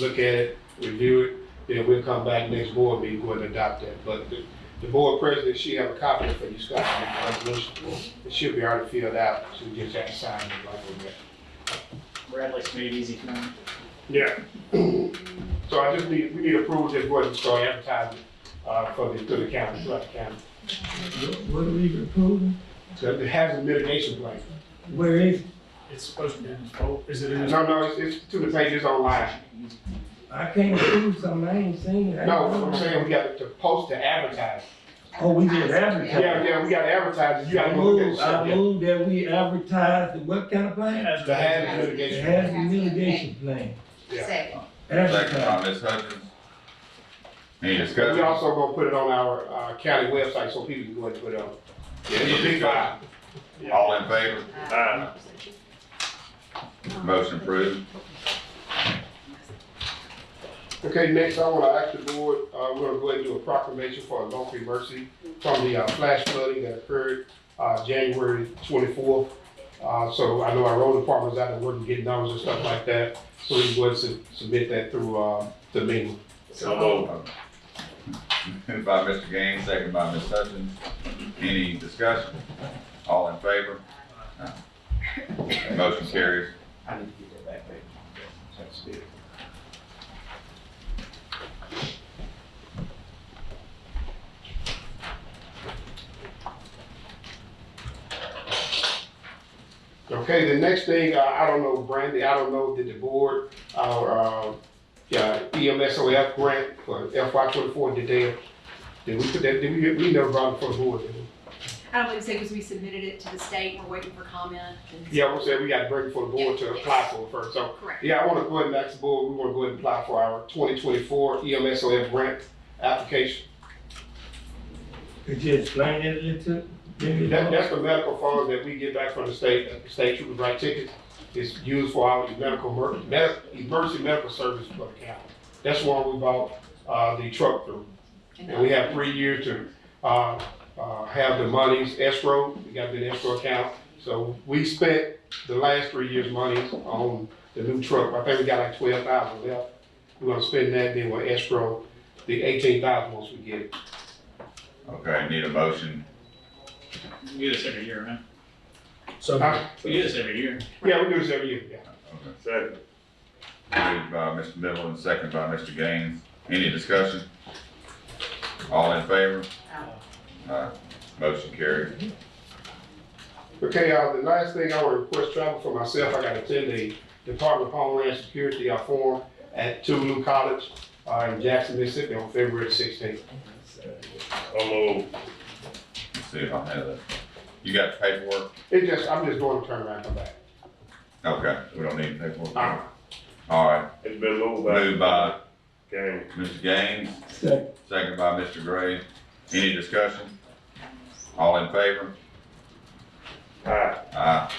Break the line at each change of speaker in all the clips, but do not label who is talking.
look at it, review it, then we'll come back next board meeting, go and adopt that. But the, the board president, she have a copy for you, Scott, of the resolution. It should be already filled out, so we just have to sign it like we got.
Bradley's made it easy for me.
Yeah. So I just need, we need approval to go ahead and start advertising, uh, for the, to the county, throughout the county.
What are we approving?
So it has a mitigation plan.
Where is, it?
It's supposed to be in his poll. Is it in his?
No, no, it's, it's to the pages online.
I can't approve something I ain't seen. I ain't
No,
know.
I'm saying we got to post to advertise.
Oh, we just advertise.
Yeah, yeah, we got to advertise, it. you got
I
to look at
move,
it.
I
Yeah.
move that we advertise the what kind of plan?
The hazard
It
mitigation. plan.
has a mitigation plan.
Yeah.
Second.
Second
Advertise.
by Ms. Hutchins. Any
We
discussion?
also gonna put it on our, uh, county website so people can go ahead and put it on. Yeah, it's a big file.
All in favor?
Uh,
Aye.
Motion approved.
Okay, next, I wanna ask the board, uh, we're gonna go ahead and do a proclamation for a local emergency from the, uh, flash flooding that occurred, uh, January twenty-fourth. Uh, so I know our road department's out there working, getting numbers and stuff like that, so we can go ahead and submit that through, uh, the meeting.
Moved by Mr. Gaines, second by Ms. Hutchins. Any discussion? All in favor? Motion carries.
I need to get that back, baby. That's it. Okay, the next thing, uh, I don't know, Brandy, I don't know, did the board, our, uh, yeah, E EMSOF grant for FY twenty-four, did they, did we put that, did we, we never brought it for the board, did we?
I don't believe so, because we submitted it to the state, we're waiting for comment. and-
Yeah, we said we got to bring it for the board to apply for it first, so
Correct.
Yeah, I want to go ahead and ask the board, we want to go ahead and apply for our E 2024 EMSOF grant application.
Could you explain that a little? Give me
That,
that.
that's the medical funds that we get back from the state, the state troopers write tickets. It's used for our medical, mer- med- emergency medical service for the county. That's why we bought, uh, the truck through. And we have three years to, uh, uh, have the monies escrow, we got the escrow account. So we spent the last three years' money on the new truck, I think we got like twelve thousand left. We're gonna spend that, then we'll escrow the eighteen thousand once we get it.
Okay, need a motion.
We do this every year, man.
Uh,
We do this every year.
Yeah, we do this every year, yeah.
Second. Moved by Mr. Middleton, second by Mr. Gaines. Any discussion? All in favor? Aye. Motion carries.
Okay, uh, the last thing I want to request travel for myself, I gotta attend the Department of Homeland Security, uh, forum at Tulu College, uh, in Jackson, Mississippi on February sixteenth.
Let's see if I have that. You got the paperwork?
It just, I'm just going to turn around and come back.
Okay, we don't need paperwork.
All right.
All right,
It's been moved by
moved by
Kane.
Mr. Gaines,
Second.
second by Mr. Gray. Any discussion? All in favor?
Aye.
Aye.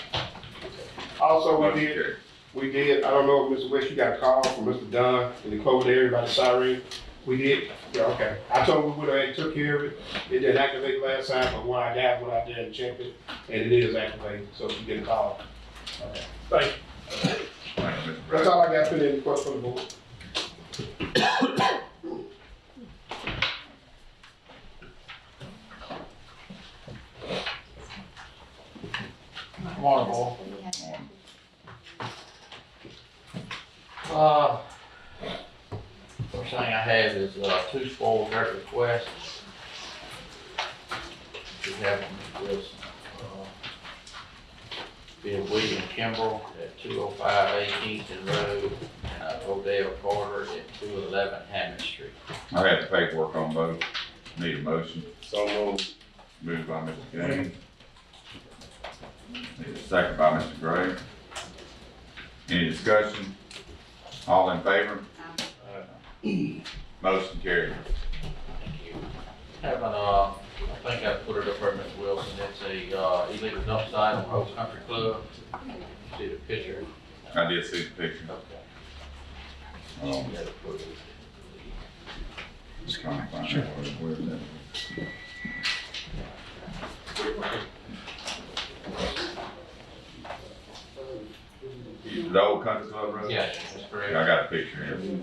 Also, we
Motion
did,
carries.
we did, I don't know, if Mr. West, you got a call from Mr. Dunn in the COVID area about the siren. We did, yeah, okay. I told him we would have took care of it. It didn't activate last time, but when I got, went out there and checked it, and it is activated, so we get a call.
Thank you, Mr.
That's
Gray.
all I got for the request for the board.
Water
Uh, first thing I have is, uh, two spoil dirt requests. We have them with, uh, Bill William Kimbrell at two oh five Eighteenth and Road, and uh, Odell Carter at two eleven Hammond Street.
I have the paperwork on both. Need a motion.
So moved.
Moved by Mr. Gaines. Need a second by Mr. Gray. Any discussion? All in favor? Motion carries.
Thank you. Having, uh, I think I put it up there, Mr. Wilson, it's a, uh, illegal dump site on Old Country Club. See the picture?
I did see the picture.
Okay.
Um,
Yeah, put it.
Just trying to find out where, where that. is. The old country club road?
Yes, that's correct.
I got a picture here.